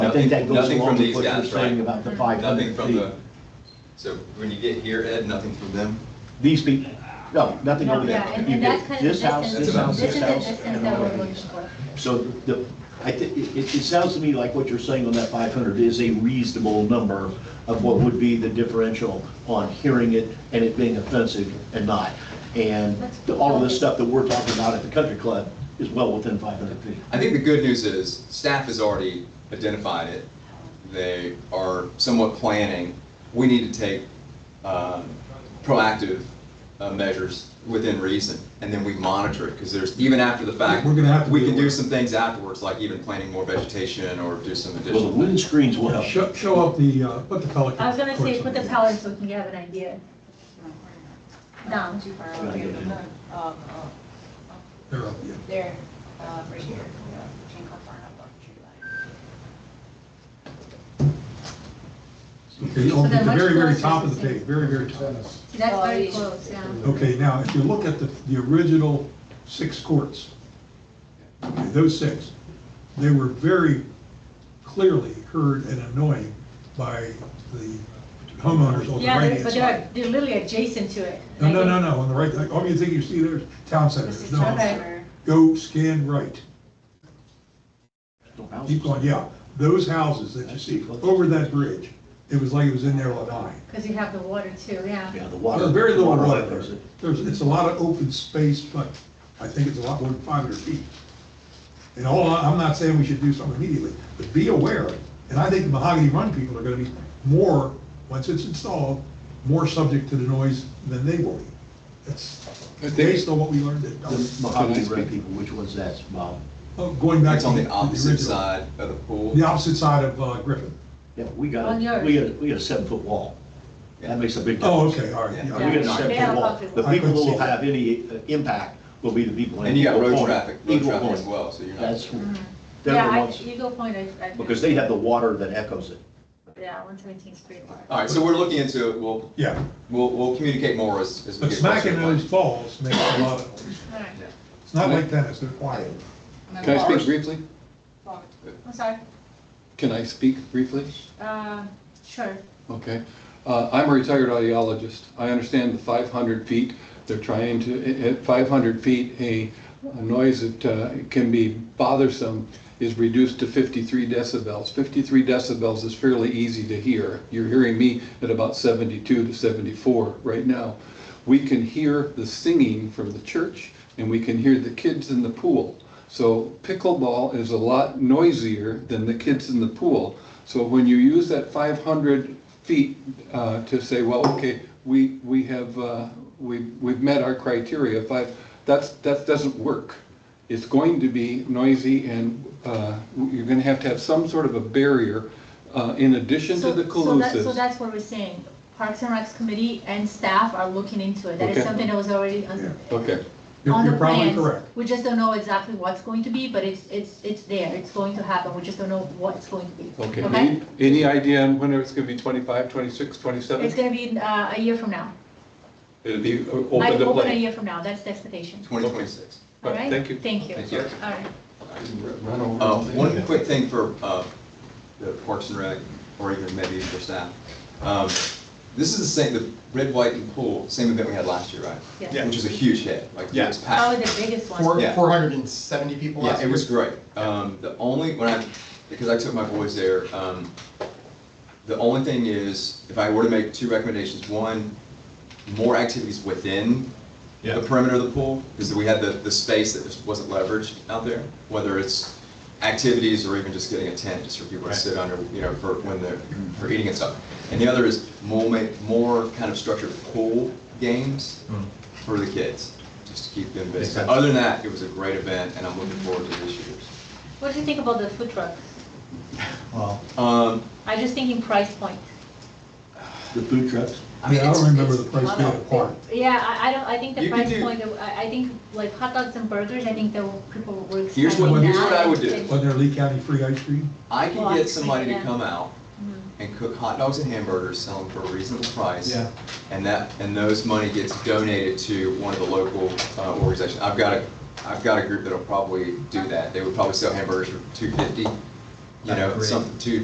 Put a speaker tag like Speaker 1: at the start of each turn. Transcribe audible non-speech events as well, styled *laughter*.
Speaker 1: I think that
Speaker 2: Nothing-
Speaker 1: goes
Speaker 2: nothing
Speaker 1: along
Speaker 2: from
Speaker 1: with
Speaker 2: these
Speaker 1: what you're
Speaker 2: guys, right?
Speaker 1: saying about the five hundred
Speaker 2: Nothing from
Speaker 1: feet.
Speaker 2: the, so when you get here, Ed, nothing from them?
Speaker 1: These people, no, nothing
Speaker 3: No,
Speaker 1: over there.
Speaker 3: Yeah, and
Speaker 1: You
Speaker 3: and that's
Speaker 1: get
Speaker 3: kind of
Speaker 1: This
Speaker 3: the
Speaker 1: house,
Speaker 3: distance-
Speaker 1: this house, this
Speaker 3: is
Speaker 1: house.
Speaker 3: the distance
Speaker 1: and
Speaker 3: that we're
Speaker 1: another
Speaker 3: looking
Speaker 1: house.
Speaker 3: for.
Speaker 1: So the, I think, it, it it sounds to me like what you're saying on that 500 is a reasonable number of what would be the differential on hearing it and it being offensive and not. And the- all of this stuff that we're talking about at the country club is well within 500 feet.
Speaker 2: I think the good news is, staff has already identified it. They are somewhat planning. We need to take um, proactive uh, measures within reason, and then we monitor it, because there's, even after the fact.
Speaker 4: We're gonna have to
Speaker 2: We
Speaker 4: do
Speaker 2: can
Speaker 4: it.
Speaker 2: do some things afterwards, like even planting more vegetation or do some
Speaker 1: Well, the
Speaker 2: additional.
Speaker 1: wooden screens will help.
Speaker 4: Show, show up the, uh, put the Pelican.
Speaker 3: I was gonna say, put the
Speaker 4: Of course.
Speaker 3: colors so we can have an idea. No,
Speaker 5: Too far
Speaker 1: Trying to get in.
Speaker 5: Um,
Speaker 4: They're up, yeah.
Speaker 5: There, uh, right here. Yeah, Can't go far enough on the tree line.
Speaker 4: Okay, on
Speaker 3: So then
Speaker 4: the
Speaker 3: much
Speaker 4: very, very
Speaker 3: closer
Speaker 4: top
Speaker 3: to
Speaker 4: of the
Speaker 3: the-
Speaker 4: page, very, very top.
Speaker 3: see, that's very
Speaker 5: Oh, yeah.
Speaker 3: close, yeah.
Speaker 4: Okay, now, if you look at the, the original six courts, okay, those six, they were very clearly heard and annoying by the homeowners on the
Speaker 3: Yeah,
Speaker 4: right
Speaker 3: they're-
Speaker 4: hand
Speaker 3: but they're,
Speaker 4: side.
Speaker 3: they're literally adjacent to it.
Speaker 4: No, no, no, no, on the right, like, all you think you see there is town centers,
Speaker 5: This is
Speaker 4: no.
Speaker 5: town center.
Speaker 4: Go scan right,
Speaker 1: No houses.
Speaker 4: keep going, yeah, those houses that you see over that bridge, it was like it was in there all night.
Speaker 3: Because you have the water too,
Speaker 1: Yeah,
Speaker 3: yeah.
Speaker 1: the water.
Speaker 4: There's very little water
Speaker 1: levels.
Speaker 4: there. There's, it's a lot of open space, but I think it's a lot more than 500 feet. And all, I- I'm not saying we should do something immediately, but be aware, and I think the Mahogany Run people are gonna be more, once it's installed, more subject to the noise than they will be. It's based on what we learned
Speaker 1: The
Speaker 4: at,
Speaker 1: Mahogany Red people, which one's that, Bob?
Speaker 4: oh, going back.
Speaker 2: That's on
Speaker 4: to
Speaker 2: the opposite
Speaker 4: original.
Speaker 2: side of the pool.
Speaker 4: The opposite side of uh, Griffin.
Speaker 1: Yeah, we got,
Speaker 3: On yours.
Speaker 1: we got, we got a seven-foot wall. That makes a big difference.
Speaker 4: Oh, okay, all right.
Speaker 2: Yeah.
Speaker 4: yeah,
Speaker 1: We
Speaker 4: okay.
Speaker 1: gotta step
Speaker 3: They
Speaker 1: to
Speaker 3: have
Speaker 1: the wall.
Speaker 3: bumpy
Speaker 1: The
Speaker 4: walls.
Speaker 1: people who will have any uh, impact will be the people. in
Speaker 2: And you got
Speaker 1: Eagle
Speaker 2: road
Speaker 1: Point.
Speaker 2: traffic, road
Speaker 1: Eagle
Speaker 2: traffic
Speaker 1: Point.
Speaker 2: as well, so you're not.
Speaker 1: That's, they're
Speaker 3: Mm-hmm. Yeah,
Speaker 1: the
Speaker 3: I,
Speaker 1: ones,
Speaker 3: Eagle Point, I. I-
Speaker 1: because they have the water that echoes it.
Speaker 3: Yeah, one seventeenth street water.
Speaker 2: All right, so we're looking into it. We'll,
Speaker 4: Yeah,
Speaker 2: we'll, we'll communicate more as, as we
Speaker 4: but
Speaker 2: get closer.
Speaker 4: smacking
Speaker 2: to the
Speaker 4: those balls makes a lot *laughs* of noise.
Speaker 3: All right,
Speaker 4: It's not like tennis, they're quiet.
Speaker 5: And
Speaker 6: Can
Speaker 5: then
Speaker 6: I speak
Speaker 5: ours-
Speaker 6: briefly?
Speaker 5: ours.
Speaker 3: I'm sorry,
Speaker 6: Can I speak briefly?
Speaker 3: uh, sure.
Speaker 6: Okay. Uh, I'm a retired audiologist. I understand the 500 feet. They're trying to, at 500 feet, a a noise that uh, can be bothersome is reduced to 53 decibels. 53 decibels is fairly easy to hear. You're hearing me at about 72 to 74 right now. We can hear the singing from the church, and we can hear the kids in the pool. So pickleball is a lot noisier than the kids in the pool. So when you use that 500 feet uh, to say, well, okay, we, we have, uh, we- we've met our criteria, five, that's, that doesn't work. It's going to be noisy and uh, you're going to have to have some sort of a barrier uh, in addition to
Speaker 3: So-
Speaker 6: the
Speaker 3: so that- So
Speaker 6: collusives.
Speaker 3: that's what we're saying, Parks and Recs committee and staff are looking into it, that is
Speaker 6: Okay.
Speaker 3: something that was already on
Speaker 4: Yeah.
Speaker 6: Okay,
Speaker 4: You're-
Speaker 3: on the
Speaker 4: You're probably
Speaker 3: plans.
Speaker 4: correct.
Speaker 3: We just don't know exactly what's going to be, but it's, it's, it's there, it's going to happen, we just don't know what it's going to be.
Speaker 6: okay. Any- Any idea on when it's going to be 25, 26, 27?
Speaker 3: It's gonna be, uh, a year from now,
Speaker 6: It'll be uh, o-
Speaker 3: I
Speaker 6: open to
Speaker 3: open a
Speaker 6: play.
Speaker 3: year from now, that's the expectation,
Speaker 2: Twenty twenty-six.
Speaker 3: all
Speaker 6: Right,
Speaker 3: right?
Speaker 6: thank you.
Speaker 3: Thank you.
Speaker 2: Thank you.
Speaker 3: All right,
Speaker 2: Uh, One quick thing for uh, the Parks and Rec, or even maybe for staff. Um, This is the same, the red, white, and pool, same event we had last year, right?
Speaker 3: Yes.
Speaker 7: Yeah.
Speaker 2: Which is a huge hit, like, it was
Speaker 3: probably
Speaker 2: packed.
Speaker 3: the biggest one.
Speaker 7: Four,
Speaker 2: Yeah.
Speaker 7: four hundred and seventy people last
Speaker 2: Yeah,
Speaker 7: year.
Speaker 2: it was great. Um, The only, when I, because I took my boys there, um, the only thing is, if I were to make two recommendations, one, more activities within
Speaker 7: Yeah.
Speaker 2: the perimeter of the pool, because we had the, the space that just wasn't leveraged out there, whether it's activities or even just getting a tent just for people to
Speaker 7: Right.
Speaker 2: sit under, you know, for when they're, for eating and stuff. And the other is more, ma- more kind of structured pool games
Speaker 7: Mm.
Speaker 2: for the kids, just to keep them
Speaker 7: Makes
Speaker 2: busy.
Speaker 7: sense.
Speaker 2: Other than that, it was a great event, and I'm looking forward to this year's.
Speaker 3: What do you think about the food trucks?
Speaker 7: Well,
Speaker 2: Um,
Speaker 3: I'm just thinking price point.
Speaker 1: The food trucks,
Speaker 2: mean,
Speaker 4: Yeah, I
Speaker 2: it's-
Speaker 4: don't remember
Speaker 2: it's-
Speaker 4: the price tag apart.
Speaker 3: Yeah, I, I don't, I think the
Speaker 2: You could
Speaker 3: price
Speaker 2: do-
Speaker 3: point, I, I think like hot dogs and burgers, I think the people were.
Speaker 2: Here's what-
Speaker 3: expecting
Speaker 2: here's what
Speaker 3: that.
Speaker 2: I would do.
Speaker 4: Wasn't there Lee County free ice cream?
Speaker 2: I can Mm-hmm.
Speaker 3: Well,
Speaker 2: get somebody to
Speaker 3: yeah.
Speaker 2: come out and cook hot dogs and hamburgers, sell them for a reasonable price.
Speaker 7: Yeah.
Speaker 2: And that, and those money gets donated to one of the local uh, organizations. I've got a, I've got a group that'll probably do that. They would probably sell hamburgers for two fifty, you
Speaker 7: That'd
Speaker 2: know,
Speaker 7: be great.
Speaker 2: something, two,